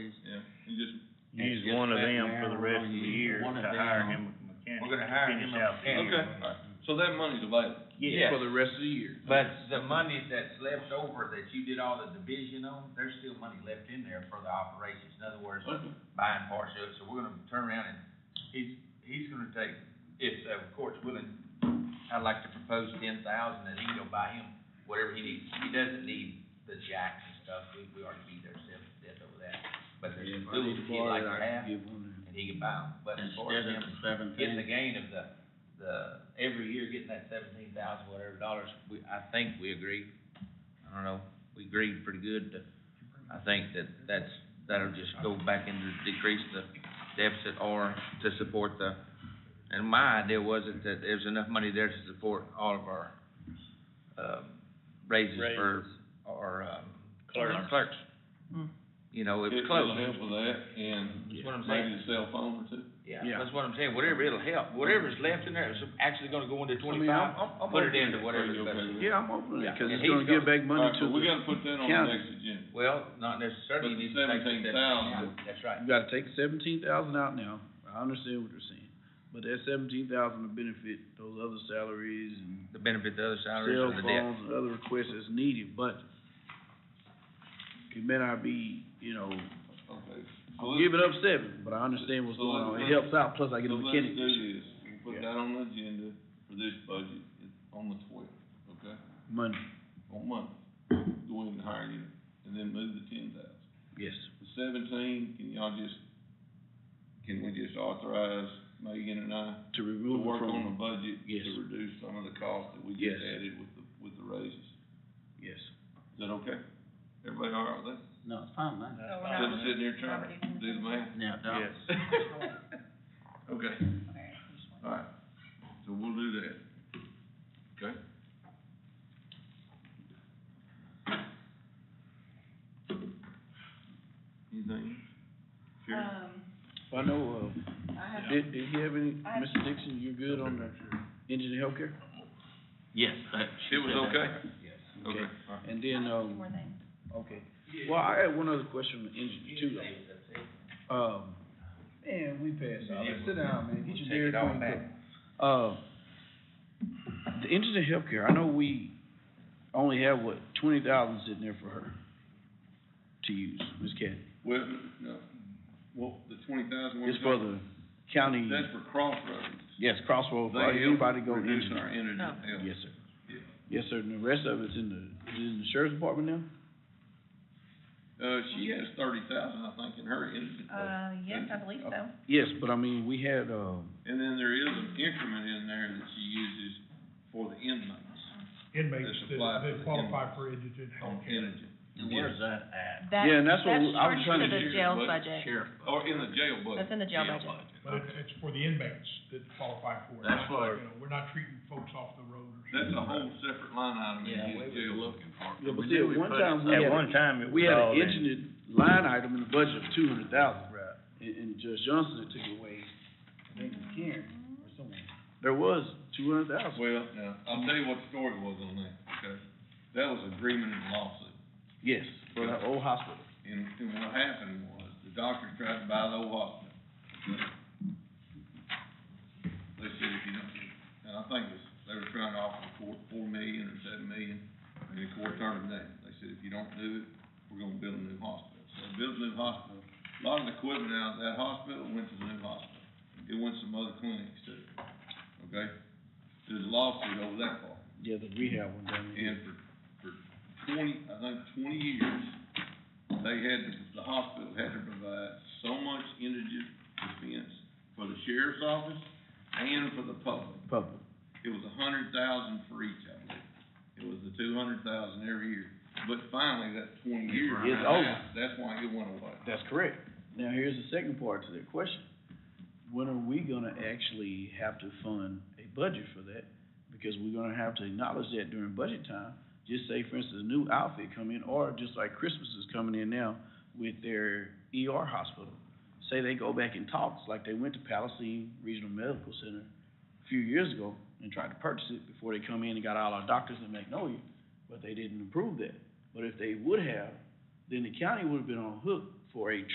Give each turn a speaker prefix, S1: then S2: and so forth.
S1: you just,
S2: Use
S3: Yes,
S2: one of
S3: that
S2: them
S3: now,
S2: for the rest of the
S3: you use
S2: year to
S3: one of
S2: hire
S3: them.
S2: him a mechanic.
S3: We're gonna
S2: to
S3: hire him
S2: finish
S3: a
S2: out the year.
S1: mechanic. so that money's available
S2: Yes,
S1: for the rest of the year.
S3: But the money that's left over that you did all the division on, there's still money left in there for the operations. In other words,
S1: Okay.
S3: buying parts of it, so we're gonna turn around and, he's, he's gonna take, if the court's willing, I'd like to propose ten thousand and he can go buy him whatever he needs. He doesn't need the jacks and stuff, we, we already beat ourselves to death over that. But there's some tools he'd like to have, and he can buy them, but as far as him getting
S4: Mm-hmm.
S3: the gain of the, the, every year getting that seventeen thousand whatever dollars, we, I think we agreed. I don't know, we agreed pretty good, to- I think that that's, that'll just go back into decrease the deficit or to support the, and my idea wasn't that there's enough money there to support all of our, um, raises for, our um.
S2: Clerks.
S3: Clerks. You know, it was close.
S1: It'll help with that and
S3: That's what I'm
S1: maybe the cell phone or two.
S3: Yeah,
S4: Yeah.
S3: that's what I'm saying, whatever it'll help, whatever's left in there is actually gonna go into twenty-five,
S4: I'm- I'm
S3: put it
S4: okay
S3: into
S1: with it.
S3: whatever's
S1: Are you okay
S3: better.
S1: with it?
S4: Yeah, I'm open to
S3: Yeah,
S4: it, cause
S3: and
S4: it's
S3: he's
S4: gonna give back money
S1: Alright,
S4: to
S1: but we
S4: the,
S1: gotta put that on the
S4: county.
S1: next agenda.
S3: Well, not necessarily, you
S1: But
S3: need to take the
S1: 17,000.
S3: seventeen. That's right.
S4: you gotta take seventeen thousand out now, I understand what you're saying. But that seventeen thousand will benefit those other salaries and
S3: The benefit to other salaries
S4: cell
S3: and the debt.
S4: phones and other requests as needed, but it may not be, you know,
S1: Okay. So
S4: I'll
S1: let's-
S4: give it up seven, but I understand what's
S1: So
S4: going on,
S1: let's-
S4: it helps out, plus I get
S1: So
S4: a
S1: let's
S4: mechanic.
S1: do this, we'll put
S4: Yeah.
S1: that on the agenda for this budget, it's on the twelfth, okay?
S4: Money,
S1: On Monday, go ahead and hire you, and then move the ten thousand.
S4: yes,
S1: The seventeen, can y'all just, can we just authorize Megan and I
S4: to
S1: to
S4: remove it
S1: work on the
S4: from,
S1: budget
S4: Yes.
S1: to reduce some of the costs that we just
S4: Yes.
S1: added with the, with the raises?
S4: yes.
S1: Is that okay? Everybody all right with that?
S5: No, it's fine, man.
S6: So we're
S2: Uh,
S6: not-
S1: Instead of sitting here trying to do the math?
S5: Yeah, no.
S2: Yes.
S1: Okay,
S6: Okay, just one.
S1: all right, so we'll do that, okay? Anything? Sure.
S6: Um,
S4: I know, uh,
S6: I have,
S4: Did, did he have any,
S6: I-
S4: Mr. Dixon, you're good on the engine and healthcare?
S5: Yes, that.
S1: It was okay? Okay, all right.
S4: And
S6: I
S4: then,
S6: have two
S4: um,
S6: more things.
S4: okay, well, I had one other question on the engine too, though. Um, man, we passed out, Let's sit down, man, get
S3: We'll
S4: your
S3: take
S4: Dairy
S3: it all
S4: Queen
S3: back.
S4: cup. Uh, the engine and healthcare, I know we only have, what, twenty thousand sitting there for her to use, Ms. Kathy?
S1: Well, no, well, the twenty thousand.
S4: It's for the county,
S1: That's for crossroads.
S4: yes, crossroads, for
S1: They help
S4: anybody go
S1: reduce
S4: engine.
S1: our energy
S6: No.
S1: bill.
S4: Yes, sir.
S1: Yeah.
S4: Yes, sir, and the rest of it's in the, is it in the sheriff's department now?
S1: Uh, she has thirty thousand, I think, in her energy bill.
S6: Uh, yes, I believe so.
S4: Yes, but I mean, we had, uh,
S1: And then there is an increment in there that she uses for the inmates
S7: inmates
S1: That's
S7: that,
S1: applied for
S7: that
S1: the
S7: qualify
S1: inmates.
S7: for indigent
S1: on
S7: healthcare.
S1: energy.
S5: And where's that at?
S6: That-
S4: Yeah, and that's what we- I was
S6: charged
S4: trying
S6: for
S1: to
S6: the
S1: do,
S6: jail
S1: but
S6: budget.
S5: Sheriff.
S1: Or in the jail budget.
S6: That's in the jail budget.
S7: But it, it's for the inmates that qualify for it.
S5: That's
S7: not,
S5: what-
S7: you know, We're not treating folks off the road or
S1: That's a
S7: something.
S1: whole separate line item
S5: Yeah,
S1: in
S5: we was
S1: his jail.
S5: looking for it.
S4: Yeah,
S5: We
S4: but see,
S5: knew
S4: at
S5: we put
S4: one
S5: it
S4: time we
S5: somewhere.
S4: had
S2: At
S4: a-
S2: one time, it
S4: we
S2: was
S4: had
S2: all
S4: an
S2: in.
S4: engine line item in the budget of two hundred thousand.
S5: Right.
S4: And, and Judge Johnson had took it away, I think it was Karen or someone. There was two hundred thousand.
S1: Well, now, I'll tell you what the story was on that, okay? That was agreement and lawsuit.
S4: Yes, for the old hospital.
S1: And, and what happened was, the doctor tried to buy the old hospital. They said, if you don't, and I think this, they were trying to offer the court four million or seven million, and the court turned them down. They said, if you don't do it, we're gonna build a new hospital. So they built a new hospital, a lot of the equipment out of that hospital went to the new hospital. It went to some other clinics too, okay? There's a lawsuit over that part.
S4: Yeah, the rehab one down there.
S1: And for, for twenty, I think twenty years, they had, to- the hospital had to provide so much indigent defense for the sheriff's office and for the public.
S4: Public.
S1: It was a hundred thousand for each, I believe. It was the two hundred thousand every year. But finally, that twenty years.
S4: It's
S1: ran out.
S4: over.
S1: That's why it went away.
S4: That's correct. Now, here's the second part to that question. When are we gonna actually have to fund a budget for that? Because we're gonna have to acknowledge that during budget time. Just say, for instance, a new outfit come in, or just like Christmas is coming in now with their ER hospital. Say they go back and talks, like they went to Palisade Regional Medical Center a few years ago and tried to purchase it before they come in and got all our doctors in Magnolia, but they didn't approve that. But if they would have, then the county would have been on hook for a